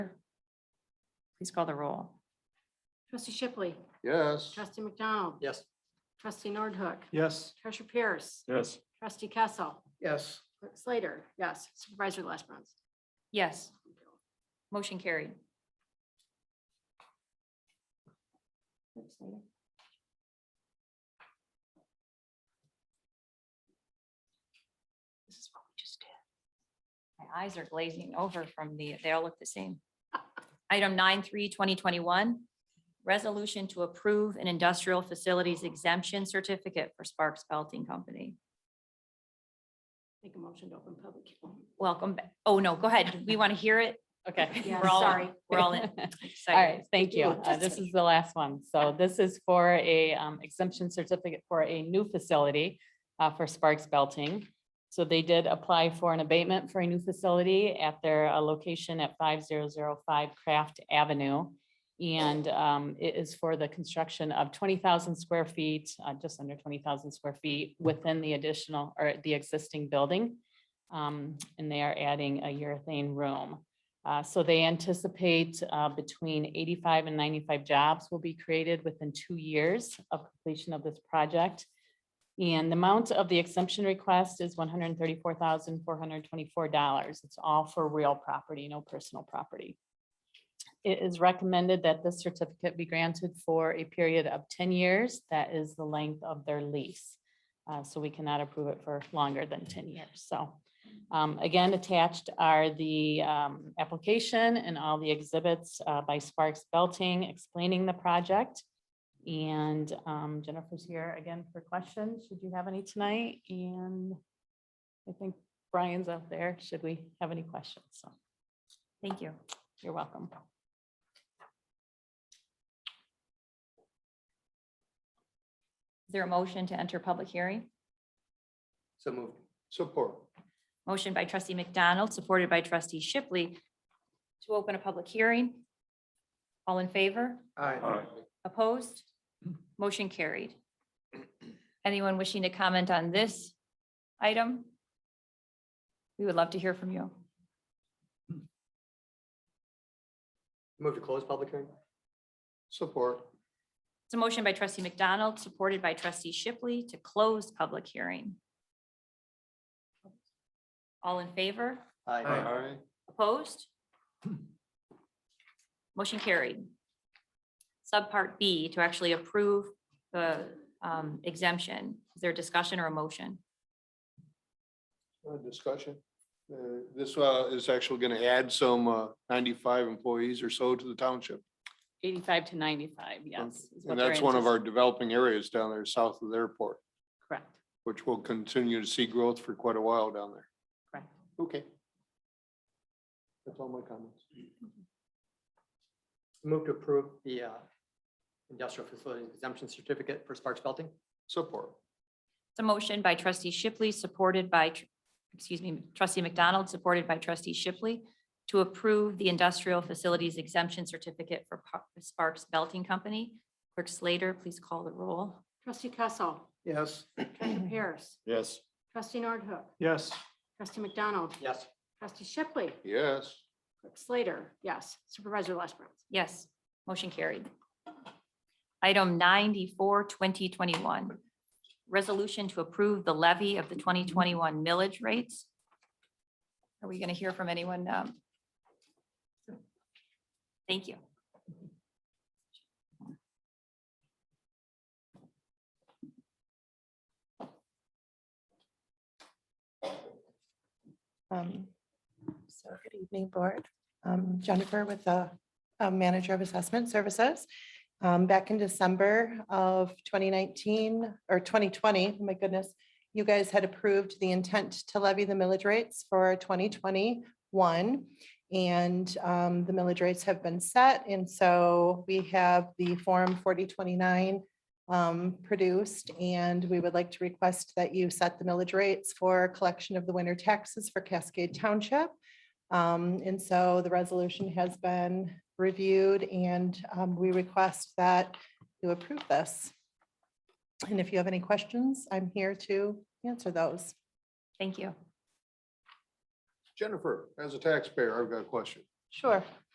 Please call the roll. Trustee Shipley, Yes. trustee McDonald. Yes. Trustee Nordhook, Yes. treasurer Pierce, Yes. trustee Kessel, Yes. clerk Slater, yes, supervisor Lesbrunz. Yes, motion carried. This is what we just did. My eyes are glazing over from the, they all look the same. Item 9.3, 2021. resolution to approve an industrial facilities exemption certificate for Sparks Belting Company. Make a motion to open public. hearing. Welcome. ba- Oh, no, go ahead. We want to hear it. Okay. Yeah, We're all- sorry. We're all in. All right, excited. thank you. Uh, This is the last one. So this is for a um, exemption certificate for a new facility uh, for Sparks Belting. So they did apply for an abatement for a new facility at their uh, location at five zero zero five Craft Avenue. And um, it is for the construction of twenty thousand square feet, uh, just under twenty thousand square feet within the additional or the existing building. Um, And they are adding a urethane room. Uh, So they anticipate uh, between 85 and 95 jobs will be created within two years of completion of this project. And the amount of the exemption request is $134,424. It's all for real property, no personal property. It is recommended that this certificate be granted for a period of 10 years. That is the length of their lease. Uh, So we cannot approve it for longer than 10 years. So um, Again, attached are the um, application and all the exhibits uh, by Sparks Belting explaining the project. And um, Jennifer's here again for questions, should you have any tonight? And I think Brian's up there, should we have any questions? So Thank you. you're welcome. Is there a motion to enter public hearing? So moved. Support. Motion by trustee McDonald, supported by trustee Shipley to open a public hearing. All in favor? Aye. Opposed? Motion carried. Anyone wishing to comment on this item? We would love to hear from you. Move to close public hearing? Support. It's a motion by trustee McDonald, supported by trustee Shipley to close public hearing. All in favor? Aye. Opposed? Motion carried. Subpart B to actually approve the um, exemption. Is there a discussion or a motion? Uh, Discussion. Uh, This uh, is actually going to add some uh, ninety-five employees or so to the township. 85 to 95, yes. is what And they're that's one of our antici- developing areas down there south of the airport, Correct, which will continue to see growth for quite a while down there. correct. Okay. That's all my comments. Move to approve the uh, industrial facilities exemption certificate for Sparks Belting? Support. It's a motion by trustee Shipley, supported by, tr- excuse me, trustee McDonald, supported by trustee Shipley to approve the industrial facilities exemption certificate for Pa- Sparks Belting Company. Clerk Slater, please call the roll. Trustee Kessel, Yes. treasurer Pierce, Yes. trustee Nordhook, Yes. trustee McDonald, Yes. trustee Shipley, Yes. clerk Slater, yes, supervisor Lesbrunz. Yes, motion carried. Item 94, 2021, resolution to approve the levy of the 2021 millage rates. Are we going to hear from anyone? um, Thank you. Um, So good evening, Board. Um, Jennifer with the uh, Manager of Assessment Services. Um, Back in December of 2019 or 2020, my goodness, you guys had approved the intent to levy the millage rates for 2021. And um, the millage rates have been set. And so we have the Form 4029 um, produced, and we would like to request that you set the millage rates for collection of the winter taxes for Cascade Township. Um, And so the resolution has been reviewed, and um, we request that you approve this. And if you have any questions, I'm here to answer those. Thank you. Jennifer, as a taxpayer, I've got a question. Sure.